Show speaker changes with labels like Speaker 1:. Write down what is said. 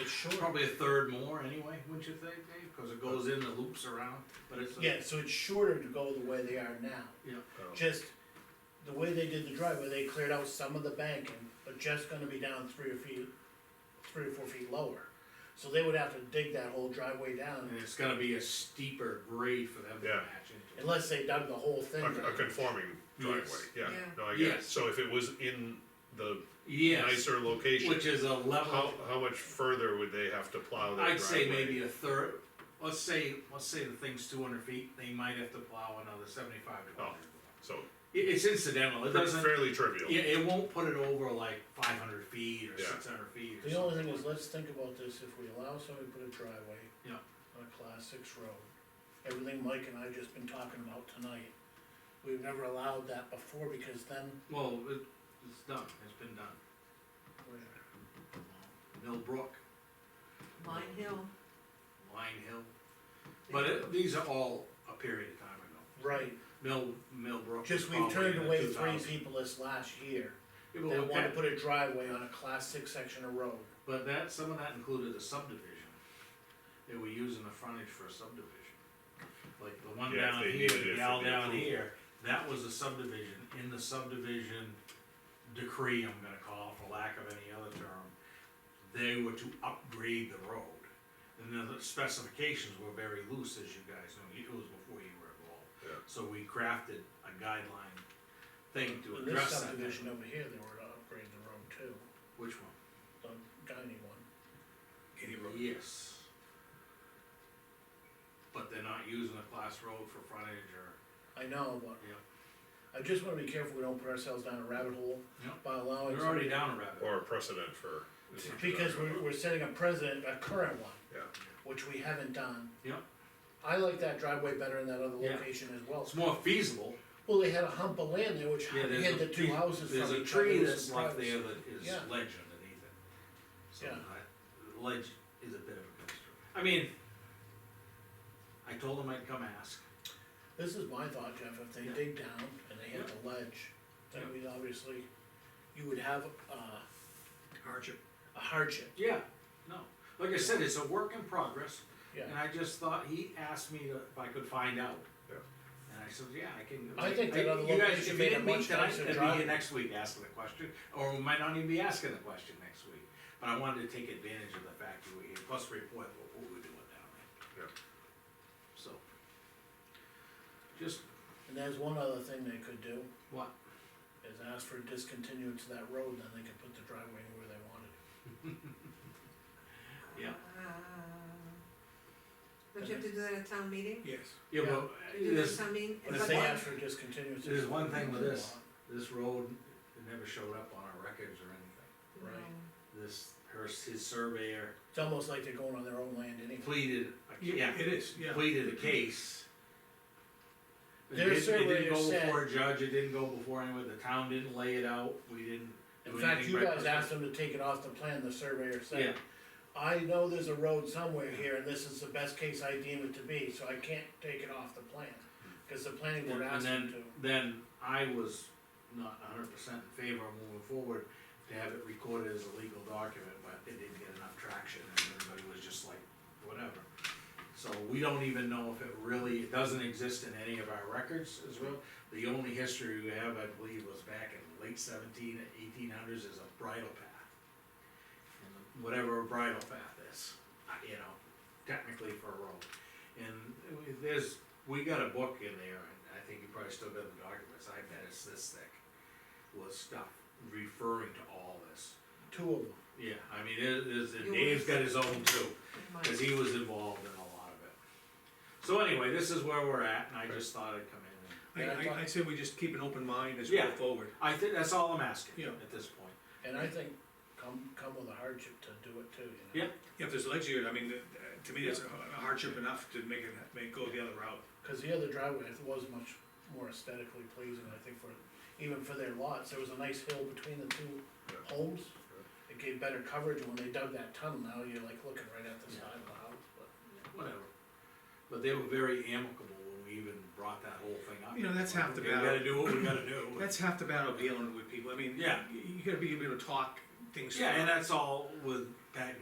Speaker 1: It's short,
Speaker 2: Probably a third more anyway, wouldn't you think, Dave? Cause it goes in and loops around, but it's. a-
Speaker 1: yeah, so it's shorter to go the way they are now.
Speaker 2: Yeah,
Speaker 1: Just, the way they did the driveway, they cleared out some of the banking, but just gonna be down three or feet, three or four feet lower. So they would have to dig that whole driveway down,
Speaker 2: and it's gonna be a steeper grade for them to
Speaker 3: Yeah.
Speaker 2: match into.
Speaker 1: unless they dug the whole thing.
Speaker 3: A, a conforming driveway,
Speaker 2: Yes.
Speaker 3: yeah,
Speaker 4: Yeah.
Speaker 3: no, I get it,
Speaker 2: Yes.
Speaker 3: so if it was in the
Speaker 2: Yes,
Speaker 3: nicer location,
Speaker 2: which is a
Speaker 3: how,
Speaker 2: level,
Speaker 3: how much further would they have to plow their driveway?
Speaker 2: I'd say maybe a third, let's say, let's say the thing's two hundred feet, they might have to plow another seventy-five to
Speaker 3: Oh.
Speaker 2: 100.
Speaker 3: So,
Speaker 2: It, it's incidental, it doesn't,
Speaker 3: fairly trivial,
Speaker 2: yeah, it won't put it over like five hundred feet or
Speaker 3: Yeah.
Speaker 2: six hundred feet or
Speaker 1: The only thing
Speaker 2: something.
Speaker 1: is, let's think about this, if we allow somebody to put a driveway.
Speaker 2: Yeah.
Speaker 1: On a class six road, everything Mike and I just been talking about tonight, we've never allowed that before, because then.
Speaker 2: Well, it, it's done, it's been done. Millbrook,
Speaker 4: Mine Hill,
Speaker 2: Line Hill, but it, these are all a period of time ago.
Speaker 1: Right,
Speaker 2: Mill, Millbrook. was
Speaker 1: just we've
Speaker 2: probably
Speaker 1: turned
Speaker 2: in the
Speaker 1: away three
Speaker 2: 2000s.
Speaker 1: people this last year,
Speaker 2: Yeah, well,
Speaker 1: that wanted to
Speaker 2: that-
Speaker 1: put a driveway on a class six section of road.
Speaker 2: But that, some of that included a subdivision. They were using the frontage for a subdivision. Like the one
Speaker 3: Yeah, if
Speaker 2: down
Speaker 3: they
Speaker 2: here,
Speaker 3: needed it
Speaker 2: the
Speaker 3: for
Speaker 2: gal
Speaker 3: the
Speaker 2: down
Speaker 3: approval.
Speaker 2: here, that was a subdivision, in the subdivision decree, I'm gonna call it, for lack of any other term, they were to upgrade the road. And then the specifications were very loose, as you guys know, it was before you were involved.
Speaker 3: Yeah.
Speaker 2: So we crafted a guideline thing to
Speaker 1: In This
Speaker 2: address that.
Speaker 1: subdivision over here, they were to upgrade the road too,
Speaker 2: Which one?
Speaker 1: the Guiney one.
Speaker 2: Yes. But they're not using a class road for frontage or,
Speaker 1: I know, but.
Speaker 2: Yeah.
Speaker 1: I just wanna be careful we don't put ourselves down a rabbit hole
Speaker 2: Yeah.
Speaker 1: by allowing.
Speaker 2: they're already down a rabbit.
Speaker 3: or a precedent for. this
Speaker 1: somebody-
Speaker 3: much
Speaker 1: Because
Speaker 3: driveway.
Speaker 1: we're, we're setting a precedent, a current one.
Speaker 3: Yeah.
Speaker 1: Which we haven't done.
Speaker 2: Yeah.
Speaker 1: I like that driveway better in that other
Speaker 2: Yeah.
Speaker 1: location as well.
Speaker 2: It's more feasible.
Speaker 1: Well, they had a hump of land there which
Speaker 2: Yeah, there's
Speaker 1: hid
Speaker 2: a
Speaker 1: the
Speaker 2: tree-
Speaker 1: two houses from each
Speaker 2: There's
Speaker 1: other.
Speaker 2: a tree
Speaker 1: It was
Speaker 2: that's left there
Speaker 1: surprising.
Speaker 2: that is
Speaker 1: Yeah.
Speaker 2: ledge underneath it. So
Speaker 1: Yeah.
Speaker 2: that, ledge is a bit of a concern. I mean, I told them I'd come ask.
Speaker 1: This is my thought, Jeff, if they
Speaker 2: Yeah.
Speaker 1: dig down and they hit
Speaker 2: Yeah.
Speaker 1: the ledge, then
Speaker 2: Yeah.
Speaker 1: we'd obviously, you would have, uh,
Speaker 2: Hardship.
Speaker 1: a hardship,
Speaker 2: Yeah, no. Like I said, it's a work in progress.
Speaker 1: yeah.
Speaker 2: And I just thought, he asked me if I could find out.
Speaker 3: Yeah.
Speaker 2: And I said, yeah, I can.
Speaker 1: I think that other
Speaker 2: You guys,
Speaker 1: location made a much
Speaker 2: If
Speaker 1: nicer
Speaker 2: you didn't meet tonight, I'd be
Speaker 1: drive.
Speaker 2: here next week asking the question, or we might not even be asking the question next week. But I wanted to take advantage of the fact you were here, plus report what we were doing down there.
Speaker 3: Yeah.
Speaker 2: So. Just,
Speaker 1: And there's one other thing they could do,
Speaker 2: what,
Speaker 1: is ask for discontinuance of that road, then they could put the driveway where they wanted it.
Speaker 2: Yeah.
Speaker 4: uh, don't you have to do that at town meeting?
Speaker 1: Yes.
Speaker 2: yeah,
Speaker 1: Yeah.
Speaker 2: well,
Speaker 4: Do that at
Speaker 2: this,
Speaker 4: town meeting?
Speaker 1: But if
Speaker 4: But
Speaker 1: they
Speaker 4: that-
Speaker 1: ask for discontinuance.
Speaker 2: there's one thing with
Speaker 1: they
Speaker 2: this.
Speaker 1: want.
Speaker 2: this road, it never showed up on our records or anything.
Speaker 1: Right.
Speaker 4: No.
Speaker 2: This, her, his surveyor
Speaker 1: It's almost like they're going on their own land anyway.
Speaker 2: pleaded, a- yeah.
Speaker 5: It is, yeah.
Speaker 2: pleaded a case. It
Speaker 1: Their
Speaker 2: didn't- It
Speaker 1: surveyor
Speaker 2: didn't go
Speaker 1: said-
Speaker 2: before a judge, it didn't go before anyone, the town didn't lay it out, we didn't. do
Speaker 1: In fact,
Speaker 2: anything
Speaker 1: you
Speaker 2: by
Speaker 1: guys
Speaker 2: person-
Speaker 1: asked them to take it off the plan, the surveyor
Speaker 2: Yeah,
Speaker 1: said, I know there's a road somewhere here, and this is the best case I deem it to be, so I can't take it off the plan. Cause the planning
Speaker 2: and
Speaker 1: board
Speaker 2: and
Speaker 1: asked them
Speaker 2: then,
Speaker 1: to.
Speaker 2: then I was not hundred percent in favor of moving forward to have it recorded as a legal document, but it didn't get enough traction and everybody was just like, whatever. So we don't even know if it really, it doesn't exist in any of our records as well. The only history we have, I believe, was back in late seventeen, eighteen hundreds as a bridle path. And Whatever a bridle path is, uh, you know, technically for a road. And uh, there's, we got a book in there, and I think you probably still got the documents, I bet it's this thick. Was stuff referring to all this.
Speaker 1: Two of them.
Speaker 2: Yeah, I mean, it is,
Speaker 4: You
Speaker 2: and Dave's
Speaker 4: were-
Speaker 2: got his own too.
Speaker 4: It might.
Speaker 2: Cause he was involved in a lot of it. So anyway, this is where we're at, and I just thought I'd come in and,
Speaker 5: I, I, I say we just keep an open mind as we
Speaker 2: Yeah.
Speaker 5: go forward.
Speaker 2: I think that's all I'm asking
Speaker 5: Yeah.
Speaker 2: at this point.
Speaker 1: And I think come, come with a hardship to do it too, you know?
Speaker 2: Yeah.
Speaker 5: If there's legs here, I mean, uh, to me, that's a hardship enough to make it, make, go the other route.
Speaker 1: Cause the other driveway it was much more aesthetically pleasing, I think, for, even for their lots, there was a nice hill between the two
Speaker 3: Yeah.
Speaker 1: homes. It gave better coverage, when they dug that tunnel, now you're like looking right at the side of the house, but.
Speaker 2: Whatever. But they were very amicable when we even brought that whole thing up.
Speaker 5: You know, that's half the
Speaker 2: Okay, We
Speaker 5: battle.
Speaker 2: gotta do what we gotta do.
Speaker 5: That's half the battle of dealing with people, I mean,
Speaker 2: Yeah.
Speaker 5: you you gotta be able to talk things.
Speaker 2: Yeah,
Speaker 5: through.
Speaker 2: and that's all with Pat